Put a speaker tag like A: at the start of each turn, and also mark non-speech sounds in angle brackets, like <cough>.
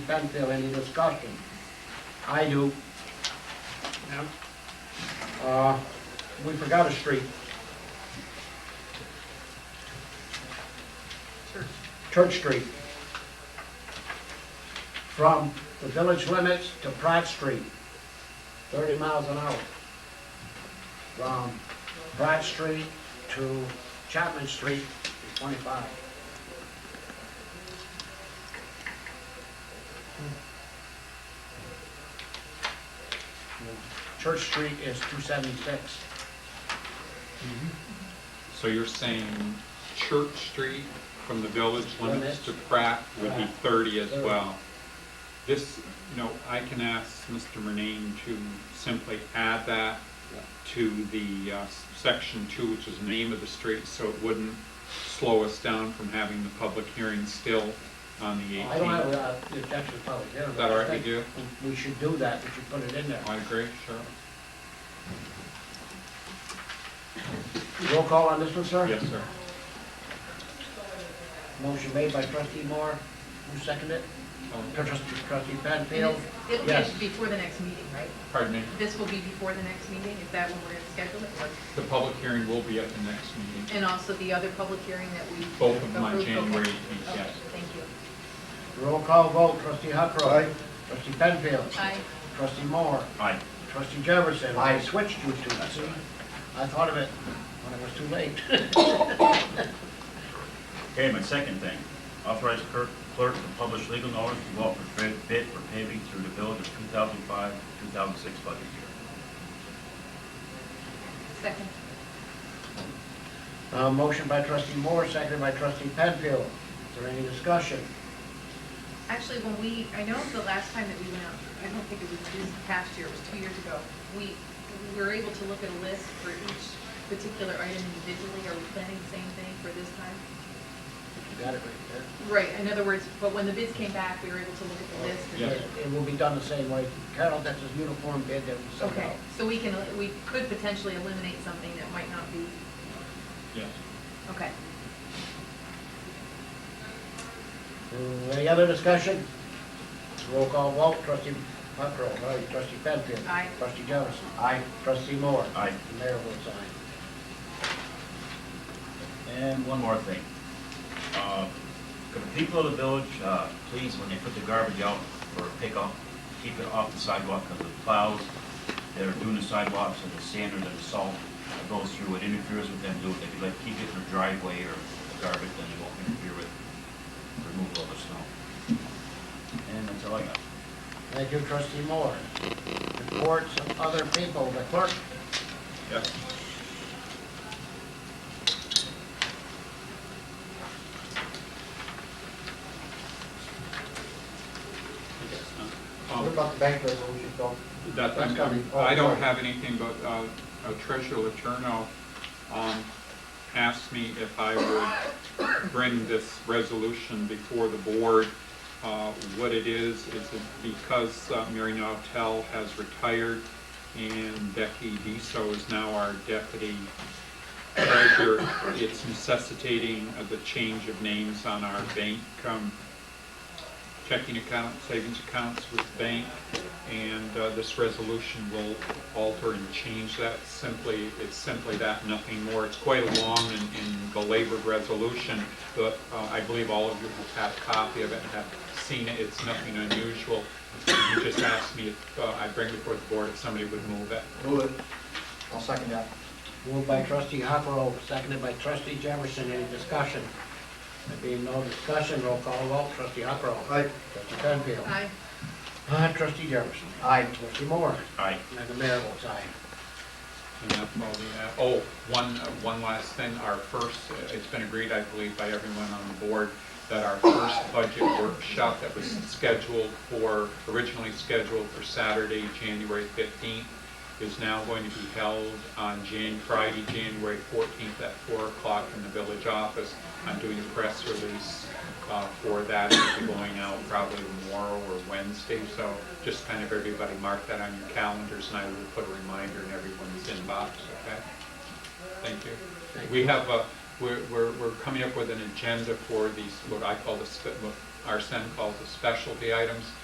A: Penfield, any discussion? I do.
B: Yeah.
A: Uh, we forgot a street. Church Street. From the village limits to Pratt Street, thirty miles an hour. From Pratt Street to Chapman Street, twenty-five. Church Street is two seventy-six.
C: So you're saying Church Street from the village limits to Pratt would be
A: Pratt.
C: thirty as
A: Thirty.
C: well. This, you know, I can ask Mr. Murnane to simply add that to the uh, section two, which is name of the street, so it wouldn't slow us down from having the public hearing still on the
A: I don't have,
C: eighteenth.
A: uh, the objection to public hearing.
C: Is that all right
A: I
C: with
A: think
C: you?
A: we- We should do that, we should put it in there.
C: I agree, sure.
A: Roll call on this one, sir?
C: Yes, sir.
A: Motion made by trustee Moore, who seconded it?
C: Oh,
A: Trustee trustee Penfield?
D: This
A: Yes.
D: is before the next meeting, right?
C: Pardon me,
D: This will be before the next meeting, is that when we're going to schedule it? Or-
C: the public hearing will be at the next meeting,
D: And also the other public hearing that we.
C: both of them on
D: approved? Okay.
C: January eighteenth,
D: Okay,
C: yes.
D: thank you.
A: Roll call vote, trustee Huckrow. Trustee Penfield.
D: Aye.
A: Trustee Moore.
C: Aye.
A: Trustee Jefferson. I switched you two, see? I thought of it when it was too late. <laughs>
E: Okay, my second thing, authorize clerk clerk to publish legal notice to go out for bid- bid for paving through the village of 2005, 2006 budget year.
D: Second.
A: Uh, motion by trustee Moore, seconded by trustee Penfield. Is there any discussion?
D: Actually, when we, I know the last time that we went out, I don't think it was this past year, it was two years ago, we, we were able to look at a list for each particular item individually. Are we planning the same thing for this time?
A: You got it right
D: Right, in other words, but when the bids came back, we were able to look at the list. and-
A: there?
C: Yes.
A: It- It will be done the same way. Carol, that's a uniform bid that we sent
D: Okay,
A: out.
D: so we can, we could potentially eliminate something that might not be,
C: Yes.
D: okay.
A: Uh, Any other discussion? Roll call vote, trustee Huckrow, aye, trustee Penfield.
D: Aye.
A: Trustee Jefferson. Aye. Trustee Moore.
E: Aye.
A: The mayor votes aye.
E: And one more thing. Uh, Could the people of the village, uh, please, when they put the garbage out or pick up, keep it off the sidewalk because the plows that are doing the sidewalks and the sand or the salt that goes through, it interferes with them doing it. If you like, keep it in their driveway or the garbage, then it won't interfere with removal of the snow. And that's all I got.
A: Thank you, trustee Moore. Reports of other people, the clerk.
C: Yes. Um,
F: What about the bank resolution, Phil?
C: That,
F: That's gotta be-
C: I'm- I don't have anything, but uh, uh, Treasurer Letourneau um, asked me if I would bring this resolution before the board. Uh, What it is, is it because uh, Mary Nautel has retired and Becky Deso is now our deputy treasurer, it's necessitating of the change of names on our bank um, checking account, savings accounts with the bank, and uh, this resolution will alter and change that. Simply, it's simply that, nothing more. It's quite a long and and belabored resolution, but uh, I believe all of you have had a copy of it and have seen it. It's nothing unusual. You just asked me if uh, I bring before the board if somebody would move it.
F: Move it. I'll second that.
A: Moved by trustee Huckrow, seconded by trustee Jefferson. Any discussion? There being no discussion, roll call vote, trustee Huckrow.
F: Aye.
A: Trustee Penfield.
D: Aye.
A: Aye, trustee Jefferson.
F: Aye.
A: Trustee Moore.
E: Aye.
A: And the mayor votes aye.
C: And that's all we have. Oh, one, uh, one last thing, our first, uh, it's been agreed, I believe, by everyone on the board, that our first budget workshop that was scheduled for, originally scheduled for Saturday, January 15th, is now going to be held on Jan, Friday, January 14th at 4 o'clock in the village office. I'm doing a press release uh, for that, it'll be going out probably tomorrow or Wednesday, so just kind of everybody mark that on your calendars, and I will put a reminder in everyone's inbox, okay? Thank you. We have, a- we're, we're we're coming up with an agenda for these, what I call the, spe- what our sen calls the specialty items.